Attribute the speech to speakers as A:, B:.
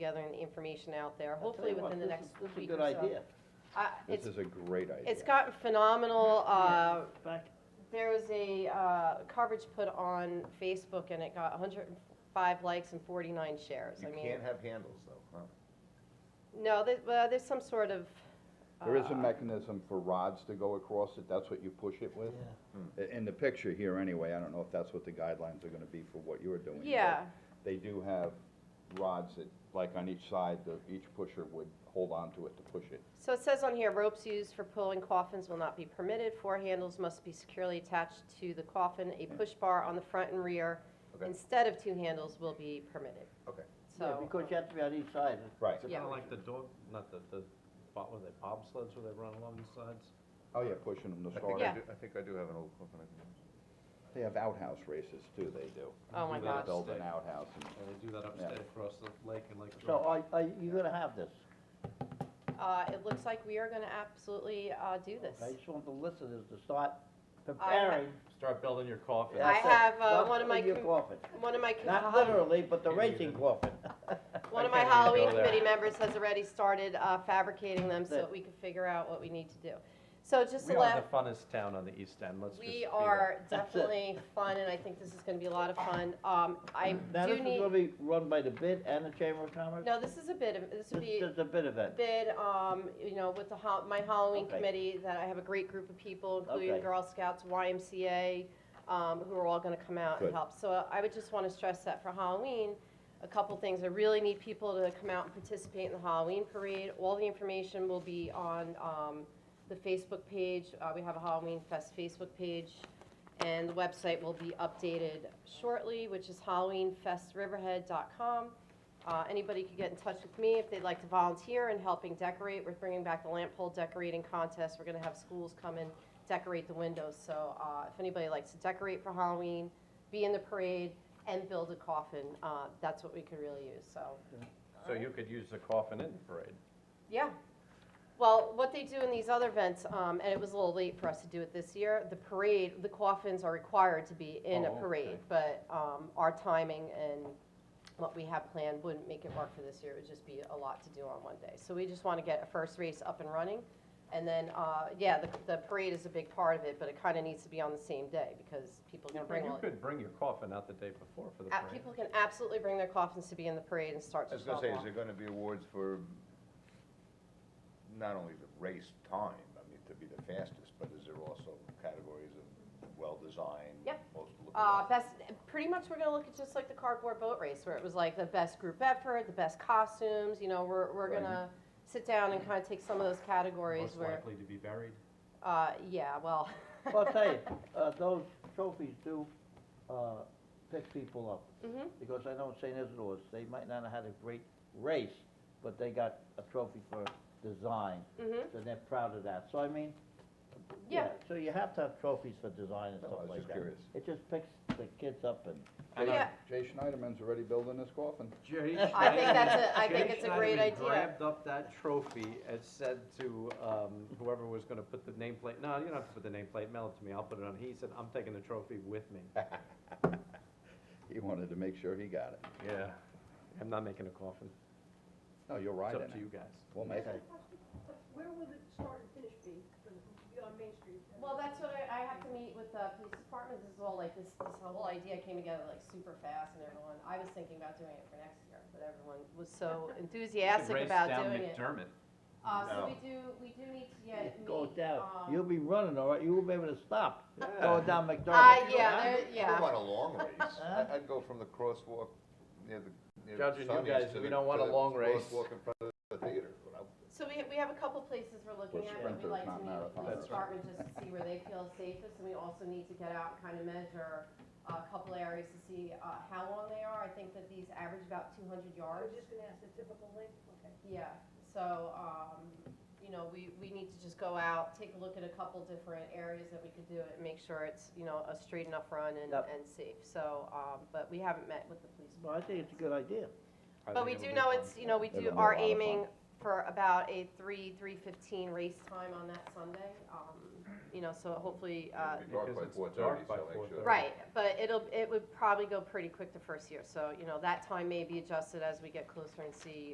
A: gathering the information out there,
B: I'll tell
A: hopefully
B: you what,
A: within the
B: this
A: next
B: is- this is a
A: week or
B: good
A: so.
B: idea.
A: I-
C: This
A: It's,
C: is a great idea.
A: it's gotten phenomenal, uh,
B: Back,
A: there was a, uh, coverage put on Facebook and it got hundred and five likes and forty-nine shares, I
D: You
A: mean.
D: can't have handles though, huh?
A: No, there, well, there's some sort of.
C: There is a
A: uh,
C: mechanism for rods to go across it, that's what you push it with? I- In the picture here anyway, I don't know if that's what the guidelines are gonna be for what you're doing. but
A: Yeah,
C: They do have rods that, like on each side, the, each pusher would hold on to it to push it.
A: so it says on here, ropes used for pulling coffins will not be permitted, four handles must be securely attached to the coffin,
C: Hmm.
A: a push bar on the front and rear
D: Okay.
A: instead of two handles will be permitted.
D: Okay.
B: yeah,
A: So.
B: because you have to be on each side.
C: Right.
A: Yeah.
E: Kind of like the dog, not the, the, what were they, bobsleds where they run along the sides?
C: Oh, yeah, pushing them to
D: I think
C: start.
A: Yeah.
D: I do, I think I do have an old clip and I can use.
C: They have outhouse races too, they do.
A: Oh my
E: Do that
A: gosh.
C: Build
E: upstate.
C: an outhouse and
E: And they do that upstate across the lake and Lake
B: So
E: George.
B: are, are you gonna have this?
A: Uh, it looks like we are gonna absolutely, uh, do this.
B: I just want the listeners to start preparing.
E: Start building your coffin.
A: I
B: That's it.
A: have, uh,
B: Not
A: one of my
B: in your
A: com-
B: coffin.
A: One of my, co- uh,
B: Not literally, but the
E: You
B: racing
E: need it.
B: coffin.
A: one of my
E: I can't even go
A: Halloween
E: there.
A: committee members has already started, uh, fabricating them so
B: There.
A: that we can figure out what we need to do. So just
E: We
A: to
E: are
A: let,
E: the funnest town on the east end, let's just. be
A: we
E: there.
A: are
B: That's it.
A: definitely fun and I think this is gonna be a lot of fun. Um, I
B: Now, this
A: do
B: is
A: need,
B: gonna be run by the bid and the Chamber of Commerce?
A: no, this is a bit of, this would
B: This
A: be.
B: is just a bid event.
A: bid, um, you know, with the, ho- my Halloween
B: Okay.
A: committee, that I have a great group of people, including
B: Okay.
A: Girl Scouts, YMCA, um, who are all gonna come out and
C: Good.
A: help. So uh, I would just wanna stress that for Halloween, a couple things, I really need people to come out and participate in the Halloween parade. All the information will be on, um, the Facebook page, uh, we have a Halloween Fest Facebook page, and the website will be updated shortly, which is halloweenfestriverhead.com. Uh, anybody could get in touch with me if they'd like to volunteer in helping decorate. We're bringing back the lamp pole decorating contest. We're gonna have schools come and decorate the windows. So, uh, if anybody likes to decorate for Halloween, be in the parade, and build a coffin, uh, that's what we could really use, so,
E: So you could use the coffin in the parade.
A: yeah. Well, what they do in these other events, um, and it was a little late for us to do it this year, the parade, the coffins are required to be in a
E: Oh, okay.
A: parade. But, um, our timing and what we have planned wouldn't make it work for this year, it would just be a lot to do on one day. So we just want to get a first race up and running, and then, uh, yeah, the, the parade is a big part of it, but it kind of needs to be on the same day, because people
E: You
A: can bring all,
E: could bring your coffin out the day before for the
A: uh,
E: parade.
A: people can absolutely bring their coffins to be in the parade and start
D: I
A: to
D: was gonna
A: shop
D: say, is there
A: off.
D: gonna be awards for not only the race time, I mean, to be the fastest, but is there also categories of well-designed?
A: Yep.
D: Most look
A: Uh,
D: alike?
A: best, pretty much we're gonna look at just like the cardboard boat race, where it was like the best group effort, the best costumes, you know, we're, we're
C: Right.
A: gonna sit down and kind of take some of those categories
E: Most
A: where,
E: likely to be buried.
A: uh, yeah, well.
B: Well, I'll tell you, uh, those trophies do, uh, pick people up.
A: Mhm.
B: Because I know St. Isidore's, they might not have had a great race, but they got a trophy for design.
A: Mhm.
B: And they're proud of that, so I mean,
A: Yeah.
B: yeah, so you have to have trophies for design and
C: No, I
B: stuff
C: was
B: like
C: just
B: that.
C: curious.
B: It just picks the kids up and,
A: Yeah,
C: Jay Schneiderman's already building his coffin.
E: Jerry
A: I think
E: Schneiderman-
A: that's a- I think
E: Jerry
A: it's a great
E: Schneiderman
A: idea.
E: Grabbed up that trophy and said to, um, whoever was gonna put the nameplate, no, you don't have to put the nameplate, mail it to me, I'll put it on. He said, I'm taking the trophy with me.
C: He wanted to make sure he got it.
E: Yeah. I'm not making a coffin.
C: No, you're
E: It's
C: right in
E: up to you
C: it.
E: guys.
C: We'll make it.
F: Where will the start and finish be, for the- on Main Street?
A: Well, that's what I, I have to meet with the police department, this is all like, this, this whole idea came together like super fast and everyone, I was thinking about doing it for next year, but everyone was so enthusiastic about doing it.
E: McDermott.
A: Uh, so
D: No.
A: we do, we do need to get, meet,
B: go down,
A: um,
B: you'll be running, all right, you won't be able to stop, going down McDermott.
A: Uh, yeah,
B: Huh?
A: there, yeah.
D: I want a long race.
B: Huh?
D: I- I'd go from the crosswalk near the, near
E: Judge and you
D: Sonny's
E: guys,
D: to
E: we
D: the-
E: don't want
D: to
E: a
D: the
E: long race.
D: Crosswalk in front of the theater. but I-
A: So we, we have a couple places we're looking
C: We're
A: at, that we'd
C: sprinters,
A: like to
C: not
A: meet with the police
C: marathoners.
A: department just to see where they feel safest, and we also need to get out and kind of measure uh, a couple areas to see, uh, how long they are, I think that these average about two hundred
F: I
A: yards.
F: was just gonna ask the typical length, okay.
A: Yeah, so, um, you know, we, we need to just go out, take a look at a couple different areas that we could do it, and make sure it's, you know, a straight enough run and,
B: Yep.
A: and safe, so, um, but we haven't met with the police.
B: Well, I think it's a good idea.
E: I
A: But we
E: think
A: do
E: it'll be
A: know
E: fun.
A: it's, you know, we
C: It'll
A: do,
C: be a
A: are
C: lot of fun.
A: aiming for about a three, three fifteen race time on that Sunday. Um, You know, so hopefully, uh,
D: It'll be dark
E: because
D: by
E: it's
D: four
E: dark
D: thirty,
E: by
D: so make sure.
E: 4:30.
A: right, but it'll, it would probably go pretty quick the first year. So, you know, that time may be adjusted as we get closer and see